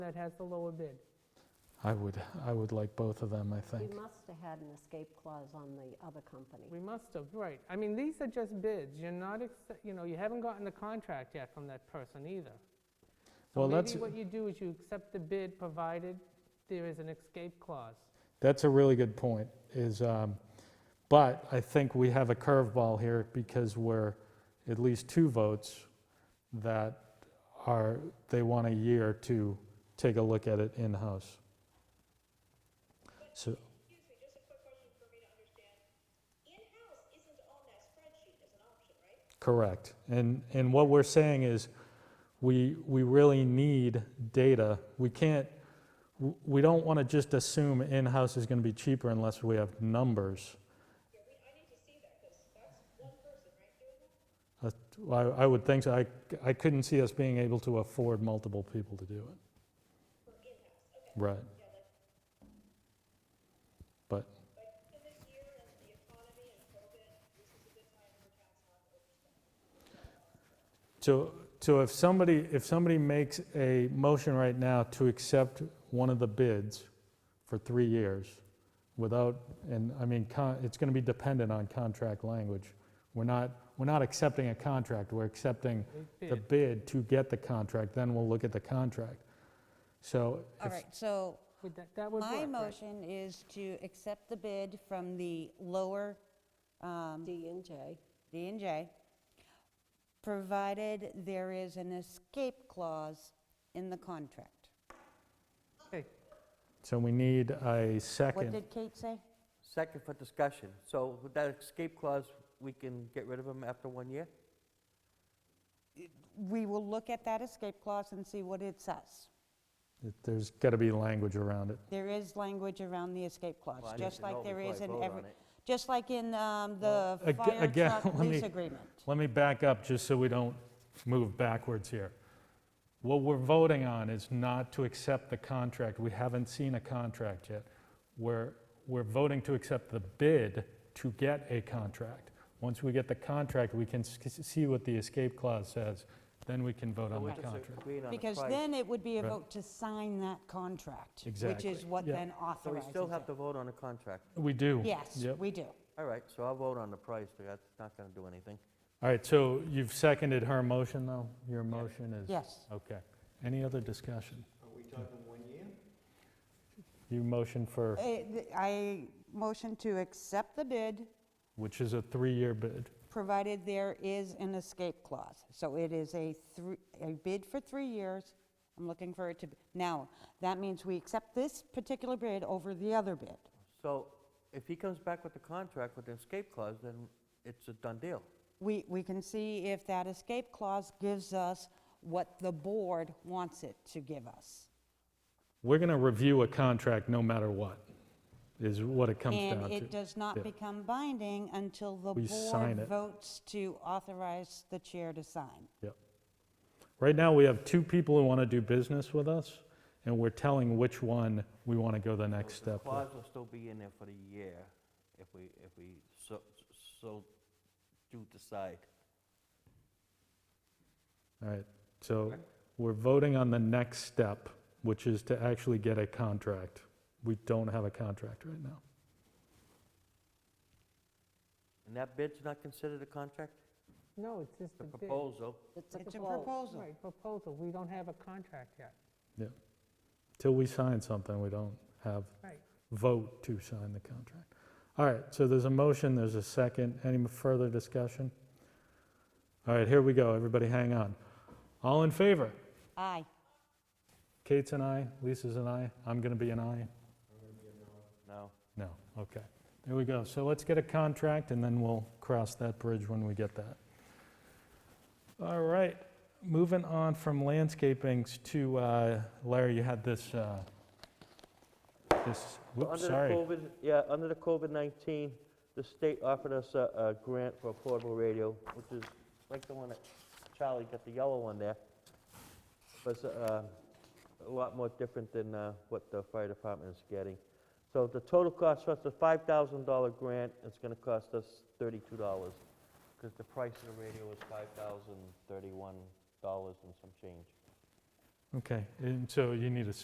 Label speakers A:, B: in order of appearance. A: that has the lower bid.
B: I would, I would like both of them, I
C: We
B: think.
C: must have had an escape clause on the other company.
A: We must have, right. I mean, these are just bids. You're not, ex- you know, you haven't gotten the contract yet from that person either. So
B: Well,
A: maybe
B: that's-
A: what you do is you accept the bid provided there is an escape clause.
B: That's a really good point, is, um, but I think we have a curveball here because we're at least two votes that are, they want a year to take a look at it in-house. So,
D: Excuse me, just a quick question for me to understand. In-house isn't on that spreadsheet as an option, right?
B: correct. And, and what we're saying is, we, we really need data. We can't, w- we don't want to just assume in-house is going to be cheaper unless we have numbers.
D: Yeah, we, I need to see that, because that's one person, right,
B: That-
D: doing that?
B: I I would think so. I I couldn't see us being able to afford multiple people to do it.
D: For in-house, okay.
B: Right.
D: Yeah, like,
B: But,
D: like, in this year and the economy and COVID, this is a good time for towns not to overspend.
B: so, so if somebody, if somebody makes a motion right now to accept one of the bids for three years without, and I mean, con- it's going to be dependent on contract language. We're not, we're not accepting a contract, we're accepting
A: A
B: the bid to get the contract, then we'll look at the contract. So
E: All
B: if-
E: right, so
A: Would that, that would work,
E: my
A: right?
E: motion is to accept the bid from the lower um,
C: D and J.
E: D and J, provided there is an escape clause in the contract.
A: Okay.
B: so we need a second.
E: What did Kate say?
F: Second for discussion. So with that escape clause, we can get rid of them after one year?
E: We will look at that escape clause and see what it says.
B: It- There's got to be language around it.
E: There is language around the escape clause,
F: Well, I need
E: just
F: to
E: like
F: know
E: there
F: before
E: is
F: I
E: in
F: vote
E: every,
F: on it.
E: just like in um, the
B: Aga-
E: fire
B: again,
E: truck
B: let me-
E: lease agreement.
B: Let me back up just so we don't move backwards here. What we're voting on is not to accept the contract. We haven't seen a contract yet. We're, we're voting to accept the bid to get a contract. Once we get the contract, we can s- see what the escape clause says, then we can vote
F: So
B: on
F: we're
B: the
F: just
B: contract.
F: agreeing on the
E: Because
F: price.
E: then it would be a
B: Right.
E: vote to sign that contract, which
B: Exactly.
E: is what
B: Yeah.
E: then
F: So we
E: authorizes
F: still have
E: it.
F: to vote on the contract.
B: We do.
E: Yes,
B: Yep.
E: we do.
F: All right, so I'll vote on the price, but that's not going to do anything.
B: All right, so you've seconded her motion, though? Your motion is?
E: Yes.
B: Okay. Any other discussion? Are we talking one year? You motion for,
E: Uh, th- I motion to accept the bid,
B: which is a three-year bid.
E: provided there is an escape clause. So it is a three, a bid for three years. I'm looking for it to, be now, that means we accept this particular bid over the other bid.
F: So if he comes back with the contract with the escape clause, then it's a done deal.
E: We, we can see if that escape clause gives us what the board wants it to give us.
B: We're going to review a contract no matter what, is what it comes down to.
E: And it does
B: Yeah.
E: not become binding until the
B: We sign
E: board
B: it.
E: votes to authorize the chair to sign.
B: Yep. Right now, we have two people who want to do business with us, and we're telling which one we want to go the next
F: The
B: step with.
F: clause will still be in there for the year if we, if we so, so do decide.
B: All right, so we're voting on the next step, which is to actually get a contract. We don't have a contract right now.
F: And that bid's not considered a contract?
A: No, it's just
F: The
A: a bid.
F: proposal?
C: It's
E: It's a
C: proposal.
E: proposal.
A: Right, proposal. We don't have a contract yet.
B: Yeah. Till we sign something, we don't have
A: Right.
B: vote to sign the contract. All right, so there's a motion, there's a second. Any further discussion? All right, here we go. Everybody hang on. All in favor?
E: Aye.
B: Kate's an aye, Lisa's an aye, I'm going to be an aye.
F: No.
B: No, okay. There we go. So let's get a contract and then we'll cross that bridge when we get that. All right, moving on from landscapings to, uh, Larry, you had this, uh, this, whoops,
F: Under the
B: sorry.
F: COVID, yeah, under the COVID-19, the state offered us a, a grant for a portable radio, which is like the one that Charlie got, the yellow one there. But it's, uh, a lot more different than uh, what the fire department is getting. So the total cost, so it's a $5,000 grant, it's gonna cost us $32, because the price of the radio is $5,031 and some change.
B: Okay, and so you need a